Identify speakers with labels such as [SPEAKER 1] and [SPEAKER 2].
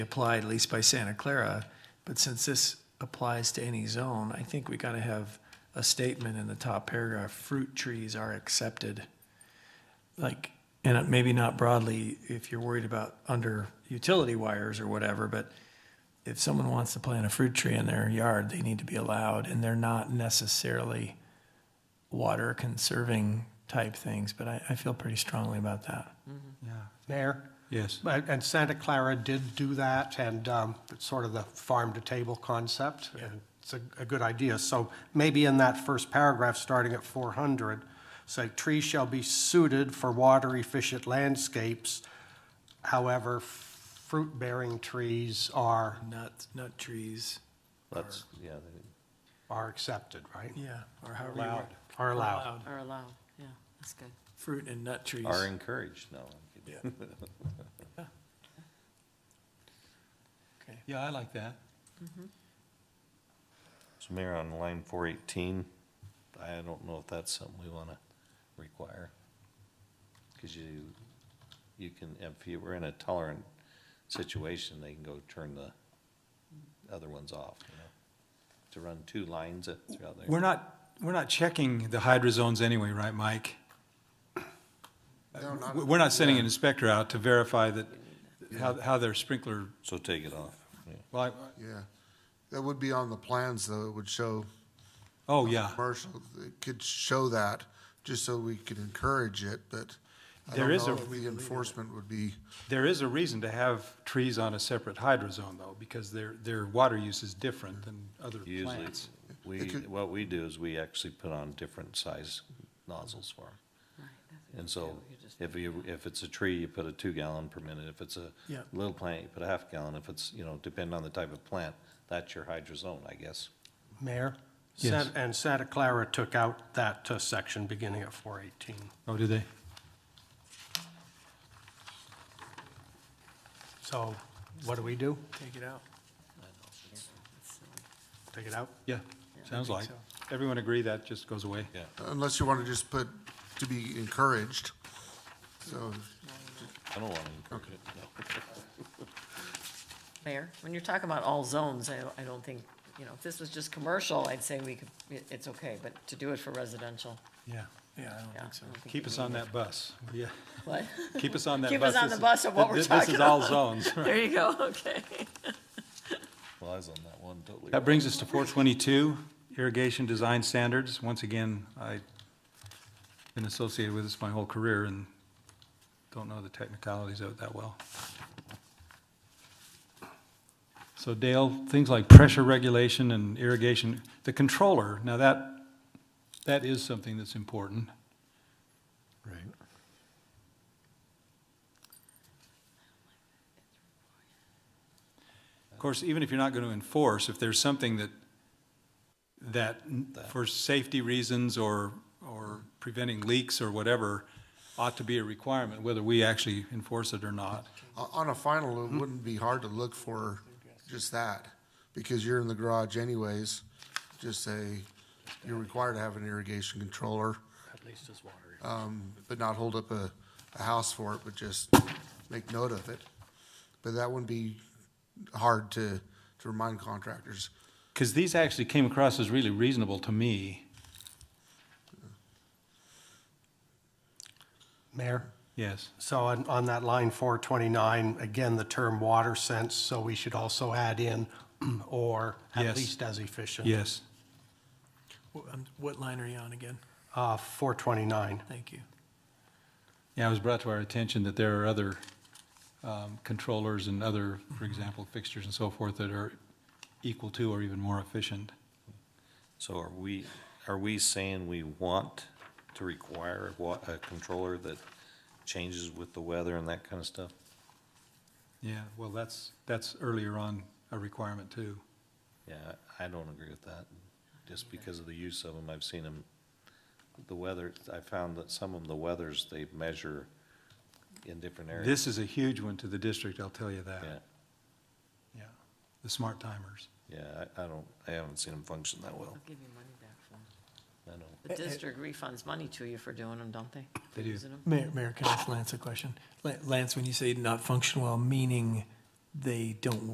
[SPEAKER 1] applied, at least by Santa Clara, but since this applies to any zone, I think we gotta have a statement in the top paragraph, fruit trees are accepted. Like, and maybe not broadly, if you're worried about under utility wires or whatever, but if someone wants to plant a fruit tree in their yard, they need to be allowed, and they're not necessarily water conserving type things, but I, I feel pretty strongly about that.
[SPEAKER 2] Yeah, Mayor?
[SPEAKER 3] Yes.
[SPEAKER 2] But- And Santa Clara did do that, and um, it's sort of the farm-to-table concept. and It's a a good idea. So maybe in that first paragraph, starting at 400, say, "Trees shall be suited for water-efficient landscapes. However, fruit-bearing trees are,
[SPEAKER 1] Nut, nut trees,
[SPEAKER 4] That's, yeah, they-
[SPEAKER 2] are accepted," right?
[SPEAKER 1] yeah, or however you
[SPEAKER 2] Allowed,
[SPEAKER 1] want.
[SPEAKER 2] are allowed.
[SPEAKER 5] Or allow, yeah, that's good.
[SPEAKER 1] Fruit and nut trees.
[SPEAKER 4] are encouraged, no.
[SPEAKER 1] Yeah. Okay.
[SPEAKER 3] Yeah, I like that.
[SPEAKER 4] So Mayor, on line four eighteen, I don't know if that's something we wanna require. Cause you, you can, if you were in a tolerant situation, they can go turn the other ones off, you know? To run two lines uh, throughout there.
[SPEAKER 3] We're not, we're not checking the hydro zones anyway, right, Mike? We- We're not sending an inspector out to verify that, how, how their sprinkler,
[SPEAKER 4] So take it off, yeah.
[SPEAKER 3] like,
[SPEAKER 6] Yeah, that would be on the plans, though, it would show
[SPEAKER 3] oh, yeah.
[SPEAKER 6] commercial, it could show that, just so we could encourage it, but I
[SPEAKER 3] There
[SPEAKER 6] don't
[SPEAKER 3] is
[SPEAKER 6] know
[SPEAKER 3] a-
[SPEAKER 6] if the enforcement would be,
[SPEAKER 3] There is a reason to have trees on a separate hydro zone, though, because their, their water use is different than other
[SPEAKER 4] Usually,
[SPEAKER 3] plants.
[SPEAKER 4] we, what we do is we actually put on different size nozzles for them.
[SPEAKER 5] Right, that's a good
[SPEAKER 4] And so
[SPEAKER 5] deal. You just-
[SPEAKER 4] if you, if it's a tree, you put a two gallon per minute. If it's a
[SPEAKER 1] Yeah.
[SPEAKER 4] little plant, you put a half gallon. If it's, you know, depending on the type of plant, that's your hydrozone, I guess.
[SPEAKER 2] Mayor?
[SPEAKER 3] Yes.
[SPEAKER 2] San- And Santa Clara took out that uh, section beginning at 418.
[SPEAKER 3] Oh, do they?
[SPEAKER 2] So what do we do?
[SPEAKER 1] Take it out.
[SPEAKER 5] That's silly.
[SPEAKER 2] Take it out?
[SPEAKER 3] Yeah, sounds like. Everyone agree that just goes away?
[SPEAKER 4] Yeah.
[SPEAKER 6] unless you want to just put, to be encouraged. So,
[SPEAKER 4] I don't want to encourage it, no.
[SPEAKER 5] Mayor, when you're talking about all zones, I, I don't think, you know, if this was just commercial, I'd say we could, it, it's okay, but to do it for residential,
[SPEAKER 3] Yeah.
[SPEAKER 1] Yeah, I don't
[SPEAKER 5] yeah.
[SPEAKER 1] think so.
[SPEAKER 5] I don't think
[SPEAKER 3] Keep
[SPEAKER 5] we
[SPEAKER 3] us
[SPEAKER 5] need
[SPEAKER 3] on
[SPEAKER 5] it.
[SPEAKER 3] that bus. Yeah,
[SPEAKER 5] What?
[SPEAKER 3] keep us on that bus.
[SPEAKER 5] Keep us on
[SPEAKER 3] This
[SPEAKER 5] the
[SPEAKER 3] is-
[SPEAKER 5] bus of what
[SPEAKER 3] thi-
[SPEAKER 5] we're
[SPEAKER 3] This
[SPEAKER 5] talking
[SPEAKER 3] is all
[SPEAKER 5] about.
[SPEAKER 3] zones.
[SPEAKER 5] There you go, okay.
[SPEAKER 4] Well, I was on that one totally.
[SPEAKER 3] That brings us to four twenty-two, irrigation design standards. Once again, I've been associated with this my whole career and don't know the technicalities of it that well. So Dale, things like pressure regulation and irrigation, the controller, now that, that is something that's important.
[SPEAKER 4] Right.
[SPEAKER 3] Of course, even if you're not going to enforce, if there's something that, that n- for safety reasons or, or preventing leaks or whatever, ought to be a requirement, whether we actually enforce it or not.
[SPEAKER 6] o- Uh, on a final,
[SPEAKER 2] Hmm.
[SPEAKER 6] it wouldn't be hard to look for just that, because you're in the garage anyways, just say, you're required to have an irrigation controller. Um,
[SPEAKER 2] At least as water.
[SPEAKER 6] but not hold up a, a house for it, but just make note of it. But that wouldn't be hard to, to remind contractors.
[SPEAKER 3] Because these actually came across as really reasonable to me.
[SPEAKER 2] Mayor?
[SPEAKER 3] Yes.
[SPEAKER 2] So on, on that line 429, again, the term water sense, so we should also add in or at
[SPEAKER 3] Yes.
[SPEAKER 2] least as efficient.
[SPEAKER 3] Yes.
[SPEAKER 1] Wh- um, What line are you on again?
[SPEAKER 2] Uh, 429.
[SPEAKER 1] Thank you.
[SPEAKER 3] Yeah, it was brought to our attention that there are other um, controllers and other, for example, fixtures and so forth that are equal to or even more efficient.
[SPEAKER 4] So are we, are we saying we want to require a wa, a controller that changes with the weather and that kind of stuff?
[SPEAKER 3] Yeah, well, that's, that's earlier on a requirement too.
[SPEAKER 4] Yeah, I don't agree with that, just because of the use of them, I've seen them, the weather, I found that some of the weathers, they measure in different areas.
[SPEAKER 3] This is a huge one to the district, I'll tell you
[SPEAKER 4] Yeah,
[SPEAKER 3] that. Yeah, the smart timers.
[SPEAKER 4] yeah, I, I don't, I haven't seen them function that well,
[SPEAKER 5] They'll give you money back for 'em.
[SPEAKER 4] I
[SPEAKER 5] The
[SPEAKER 4] know.
[SPEAKER 5] district refunds money to you for doing them, don't they?
[SPEAKER 3] They do.
[SPEAKER 5] Using 'em?
[SPEAKER 1] Mayor, Mayor, can I ask Lance a question? La- Lance, when you say not function well, meaning they don't